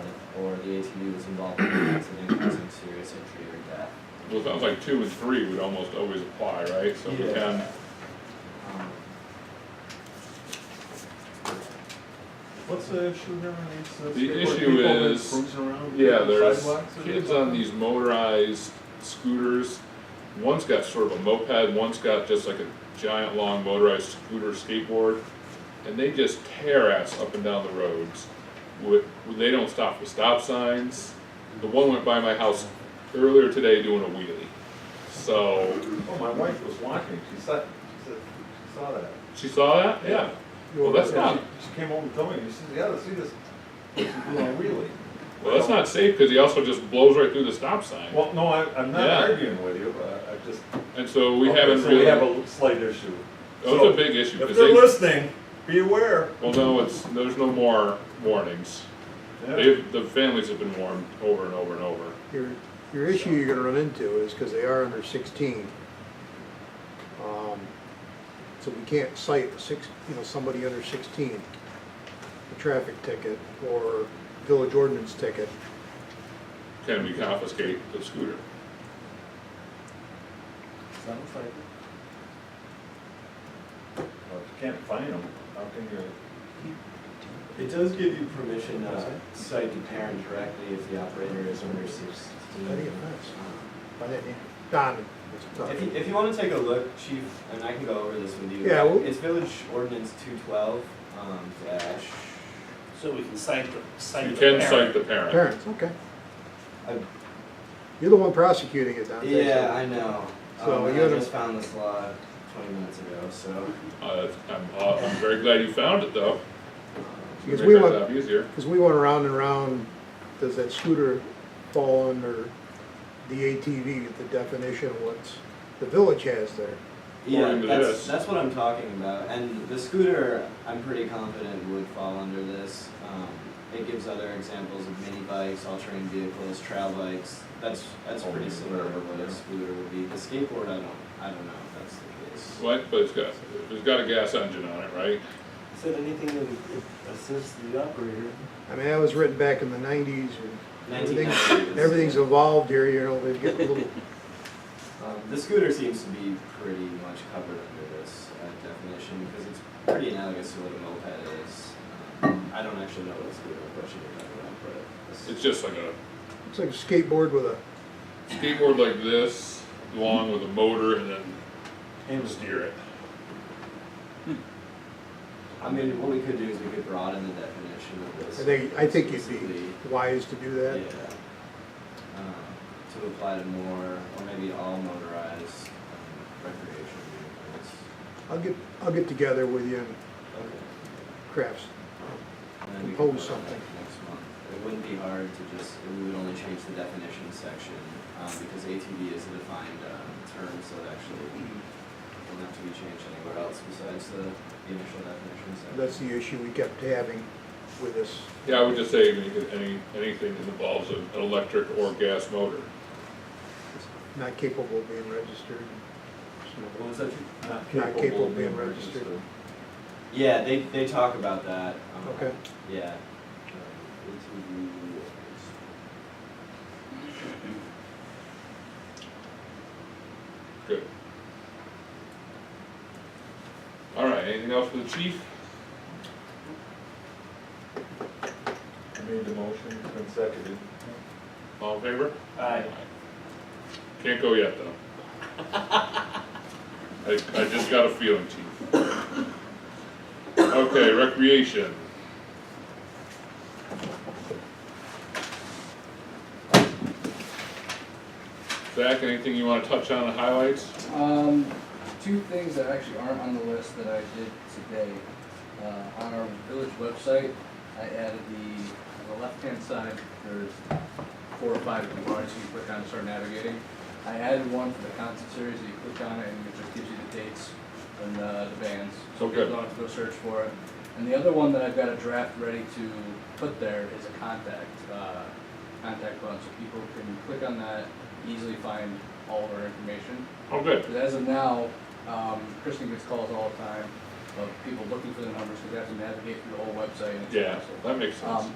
the ATV was involved in an accident causing serious injury or death. Well, it sounds like two and three would almost always apply, right? So we Yeah. can, Um, What's the issue here on these? uh, The skateboard issue people that is- cruise around yeah, the there's sidewalks and kids stuff? on these motorized scooters. One's got sort of a moped, one's got just like a giant long motorized scooter skateboard. And they just tear ass up and down the roads. With, they don't stop for stop signs. The one went by my house earlier today doing a wheelie. So, Oh, my wife was watching, she saw, she said, she saw that. she saw that? Yeah. Well, that's Yeah, not, she- She came over and told me, she said, yeah, see this, she's doing a wheelie. well, that's not safe because he also just blows right through the stop sign. Well, no, I, I'm not Yeah. arguing with you, but I just. And so we Okay, haven't so really. We have a slight issue. Oh, it's a big issue, So, If because they're they, listening, be aware. well, no, it's, there's no more warnings. Yeah. They've, the families have been warned over and over and over. Your, your issue you're gonna run into is, because they are under sixteen. um, So we can't cite six, you know, somebody under sixteen, a traffic ticket or village ordinance ticket. Can we confiscate the scooter? Sounds like it. Well, if you can't find them, how can you? It does give you permission to cite the parent directly if the operator is under sixteen. Any offense. By that, yeah. Don, it's tough. Um, If you, if you wanna take a look, chief, and I can go over this with you. Yeah, well- It's village ordinance two twelve, um, dash, So we can cite the, cite You the can parent. cite the parent. Parents, okay. Uh, I- You're the one prosecuting it, Don. yeah, I know. So Um, you're I the- just found this law twenty minutes ago, so. Uh, I'm, uh, I'm very glad you found it though. um, Because Make we our want- job Easier. Because we went around and around, does that scooter fall under the ATV, the definition of what's, the village has there? Or Yeah, into that's, this. that's what I'm talking about, and the scooter, I'm pretty confident would fall under this. Um, It gives other examples of mini bikes, all-terrain vehicles, trail bikes, that's, that's pretty similar to what a scooter would be. The skateboard, I don't, I don't know if that's the case. What, but it's got, it's got a gas engine on it, right? Said anything that assists the operator. I mean, that was written back in the nineties and everything, 1990s. everything's evolved here, you know, they've got little, Um, The scooter seems to be pretty much covered under this uh, definition, because it's pretty analogous to what a moped is. Um, I don't actually know what a scooter, is, what should be talking about, but. it's- It's just like a it's like a skateboard with a, skateboard like this, along with a motor and then hand steer it. I mean, what we could do is we could broaden the definition of this. I think, I think you'd specifically, be wise to do Yeah. that. um, To apply to more, or maybe all motorized um, recreation vehicles. I'll get, I'll get together with you and Okay. crafts, And then we could Compose vote on that something. Next month. It wouldn't be hard to just, we would only change the definition section, um, because ATV is a defined, um, term, so it actually wouldn't have to be changed anywhere else besides the the initial definition section. that's the issue we kept having with this. Yeah, I would just say make it any, anything that involves an electric or gas motor. It's Not capable of being registered. What was that? Drew? Not capable of being registered. Yeah, they, they talk about that. um, Okay. Yeah. Um, Good. All right, anything else for the chief? I made the motion, and seconded. All in favor? Aye. Can't go yet, though. I, I just got a feeling, chief. Okay, recreation. Zach, anything you wanna touch on the highlights? Um, two things that actually aren't on the list that I did today. Uh, on our village website, I added the, on the left-hand side, there's four or five bars you click on to start navigating. I added one for the concert series that you click on it and it just gives you the dates and, uh, the bands. So Okay. you don't have to go search for it. And the other one that I've got a draft ready to put there is a contact, uh, contact button, so people can click on that, easily find all of our information. Oh, good. But as of now, um, Kristen gets calls all the time of people looking for the numbers, because they have to navigate through the whole website and it's Yeah, impossible. that makes sense. Um,